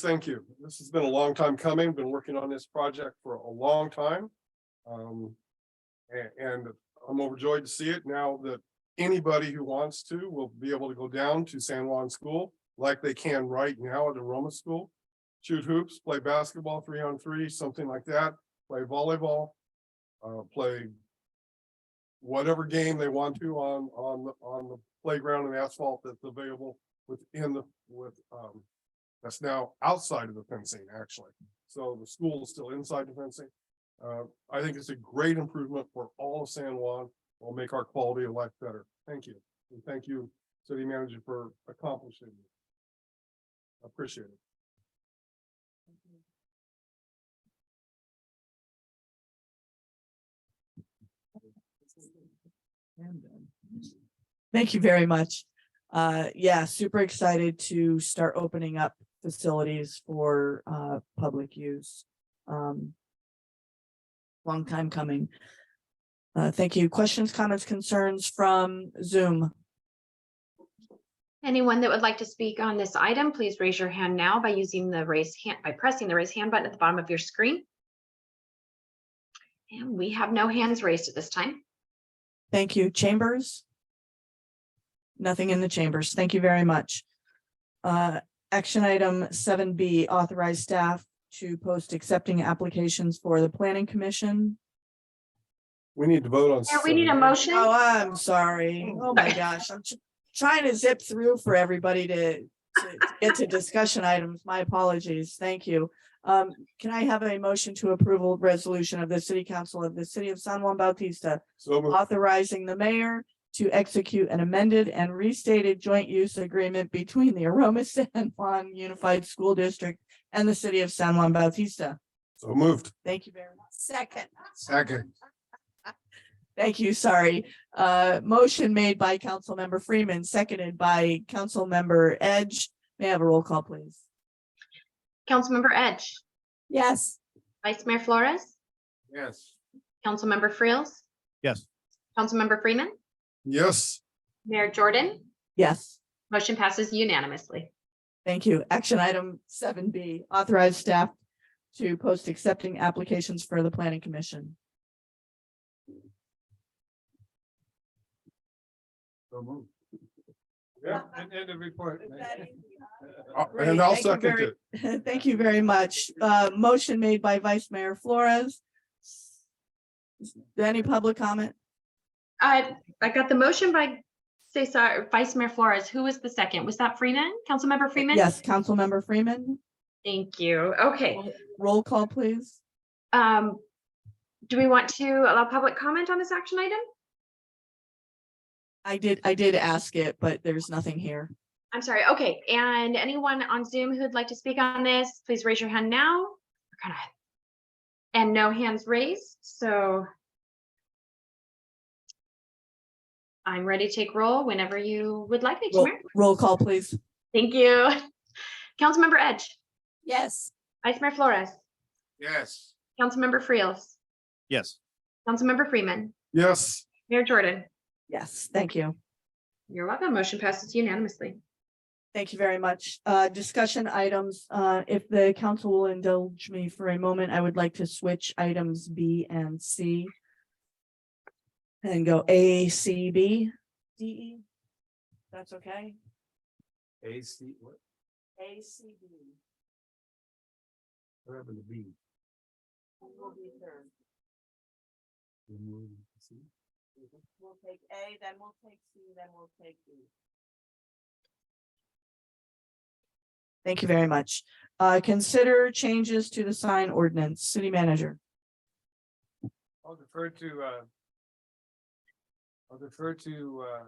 Thank you. This has been a long time coming. Been working on this project for a long time. Um, a- and I'm overjoyed to see it now that anybody who wants to will be able to go down to San Juan School like they can right now at the Roma School. Shoot hoops, play basketball, three on three, something like that, play volleyball, uh, play whatever game they want to on, on, the on the playground and asphalt that's available within the, with, um, that's now outside of the fencing, actually. So the school is still inside the fencing. Uh, I think it's a great improvement for all of San Juan. Will make our quality of life better. Thank you. And thank you, city manager, for accomplishing. it. Appreciate it. Thank you very much. Uh, yeah, super excited to start opening up facilities for, uh, public use. Um. Long time coming. Uh, thank you. Questions, comments, concerns from Zoom? Anyone that would like to speak on this item, please raise your hand now by using the raise hand, by pressing the raise hand button at the bottom of your screen. And we have no hands raised at this time. Thank you. Chambers? Nothing in the chambers. Thank you very much. Uh, action item seven B, authorize staff to post accepting applications for the planning commission. We need to vote on. Yeah, we need a seven. motion. Oh, I'm sorry. Oh, my gosh, I'm tr- trying to zip through for everybody to to get to discussion items. My apologies. Thank you. Um, can I have a motion to approval resolution of the city council of the city of San Juan Bautista So moved. authorizing the mayor to execute an amended and restated joint use agreement between the Aroma San Juan Unified School District and the city of San Juan Bautista. So moved. Thank you very much. Second. Second. Thank you, sorry. Uh, motion made by Councilmember Freeman, seconded by Councilmember Edge. May I have a roll call, please? Councilmember Edge, Yes. Vice Mayor Flores, Yes. Councilmember Frills. Yes. Councilmember Freeman, Yes. Mayor Jordan, Yes, motion passes unanimously. thank you. Action item seven B, authorize staff to post accepting applications for the planning commission. So moved. Yeah, and end of report. Great, Uh, And I'll thank you second very- it. Thank you very much. Uh, motion made by Vice Mayor Flores. Any public comment? I, Uh, I got the motion by, say, sorry, Vice Mayor Flores. Who was the second? Was that Freeman? Councilmember Freeman? Yes, Councilmember Freeman, Thank you. Okay. roll call, please. Um, do we want to allow public comment on this action item? I did, I did ask it, but there's nothing here. I'm sorry. Okay. And anyone on Zoom who'd like to speak on this, please raise your hand now. We're gonna- And no hands raised, so I'm ready to take roll whenever you would like me to. Roll, Mayor. roll call, please. Thank you. Councilmember Edge, Yes. Vice Mayor Flores, Yes. Councilmember Freels, Yes, Councilmember Freeman, Yes. Mayor Jordan. Yes, thank you. You're welcome. Motion passes unanimously. Thank you very much. Uh, discussion items, uh, if the council will indulge me for a moment, I would like to switch items B and C. And go A, C, B, D, E. That's okay? A C, what A, C, B. happened to B? We'll take A, then we'll take C, then we'll take D. Thank you very much. Uh, consider changes to the sign ordinance, city manager. I'll defer to, uh, I'll defer to, uh,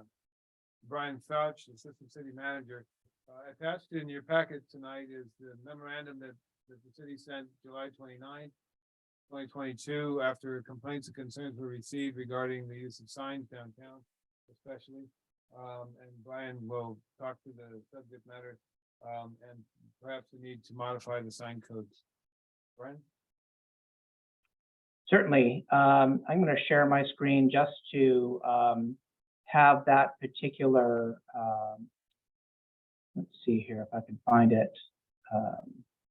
Brian Fauch, the Assistant City Manager. Uh, attached in your packet tonight is the memorandum that, that the city sent July 29th, twenty twenty-two, after complaints and concerns were received regarding the use of signs downtown especially. Um, and Brian will talk to the subject matter, um, and perhaps the need to modify the sign codes. Brian? Certainly. Um, I'm going to share my screen just to um, have that particular, um, let's see here if I can find it. Um,